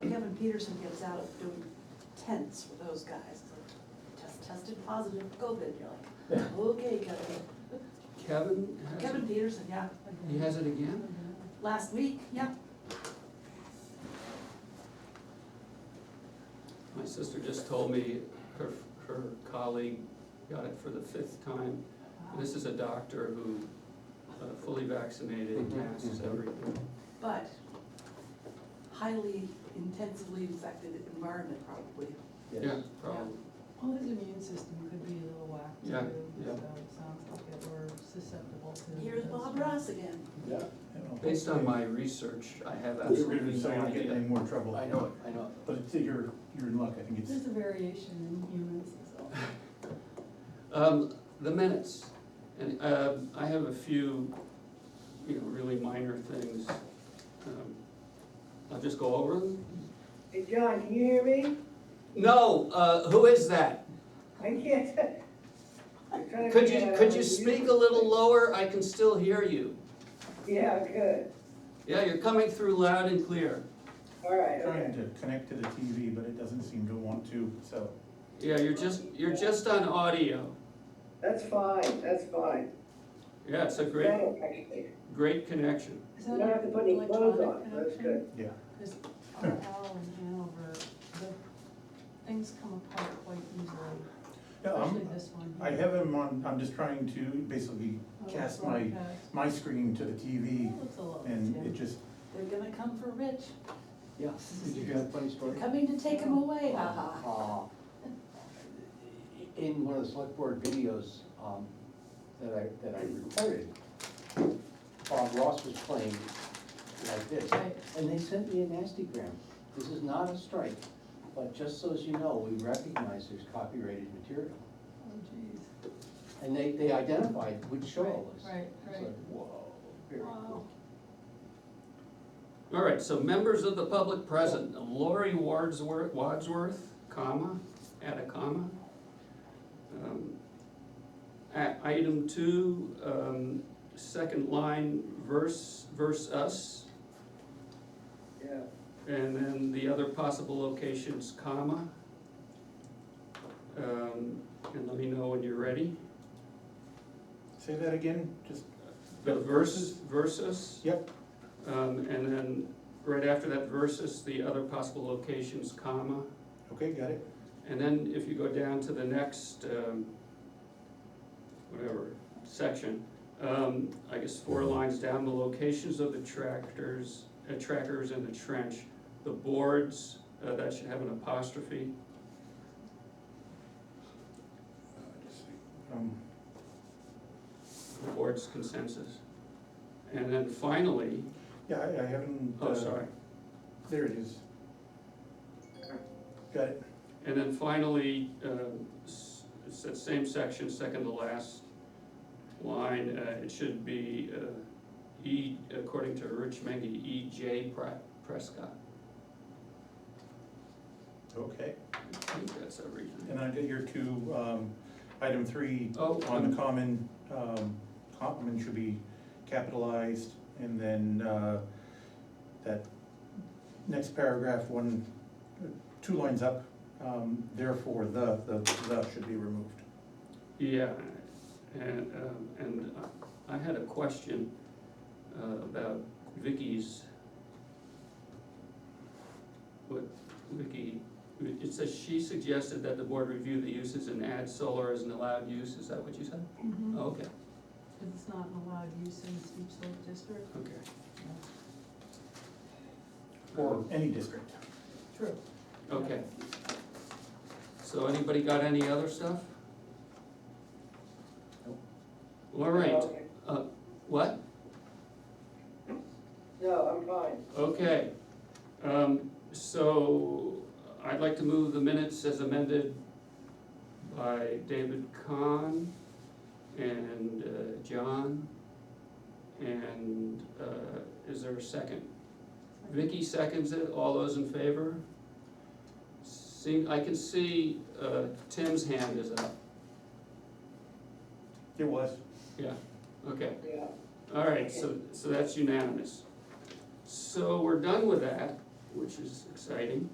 Peterson gives out doing tents with those guys, it's like, test, tested positive for COVID, and you're like, okay, Kevin. Kevin has Kevin it, Peterson, yeah, he has it again? last week, yeah, My sister just told me her, her colleague got it for the fifth time. This is a doctor who uh, fully vaccinated, masks, everything. but highly intensively infected environment probably. Yeah, probably. Well, his immune system could be a little whacked Yeah, too, so yeah. it sounds like that we're susceptible to. Here's those Bob things. Ross again, Yeah. Based on my research, I have You're gonna absolutely be no saying not getting any idea. more trouble. I know it, I know But it's, you're, you're in luck, I think it's, There's a variation in humans, so. it. Um, the minutes, and, um, I have a few, you know, really minor things. Um, I'll just go over them. Hey, John, can you hear me? No, uh, who is that? I can't. I'm trying to Could get you, out could you of speak mute. a little lower? I can still hear you. Yeah, good. Yeah, you're coming through loud and clear. All right, trying okay. to connect to the TV, but it doesn't seem to want to, so. Yeah, you're just, you're just on audio. That's fine, that's fine. Yeah, it's a great, Better, actually. great connection. Is You that don't have to put any clothes electronic on, that's connection? good. Yeah. Cause RL Oh, in Hanover, the things come apart quite easily, No, especially I'm, this one. Um, I have him on, I'm just trying to basically Oh, cast my, my screen to the TV It looks a lot, and yeah. it just, they're gonna come for Rich, Yeah, did you hear that funny story? they're coming to take him away, ha ha. Uh, In one of the select board videos, um, that I, that I recorded, Bob Ross was playing like this. Right. And they sent me a nasty gram. This is not a strike, but just so as you know, we recognize there's copyrighted material. Oh, jeez, And they, they identified which show it was. right, It's right. like, whoa, very Wow. cool. All right, so members of the public present, Lori Wadsworth, Wadsworth, comma, add a comma. Um, a- Item two, um, second line, verse, verse us, Yeah. and then the other possible locations, comma. Um, And let me know when you're ready. say that again, just, The verses, versus, yep, um, and then right after that versus, the other possible locations, comma. okay, got it. And then if you go down to the next, um, whatever, section, um, I guess four lines down, the locations of the tractors, uh, trackers in the trench, the boards, uh, that should have an apostrophe. Um, the board's consensus. And then finally, yeah, I, I haven't. oh, uh, sorry, There it is. Got it, and then finally, um, s- it's that same section, second to last line, uh, it should be, uh, E, according to Rich Mengy, E J Pre- Prescott. okay. I think that's everything. And I did your two, um, item three, Oh, on the um, common, um, complement should be capitalized, and then, uh, that next paragraph, one, two lines up, um, therefore, the, the, the should be removed. yeah, and, um, and I I had a question, uh, about Vicky's. What, Vicky, it says she suggested that the board review the uses and add solar as an allowed use, is that what you said? Mhm. Okay, Cause it's not an allowed use in the steep slope district. okay. Or any district. True. Okay. So anybody got any other stuff? Nope. All right, Okay. uh, what? No, I'm fine. Okay, um, so I'd like to move the minutes as amended by David Kahn and uh, John. And, uh, is there a second? Vicky seconds it, all those in favor? See, I can see, uh, Tim's hand is up, It was. yeah, okay. Yeah. All right, so, so that's unanimous. So we're done with that, which is exciting.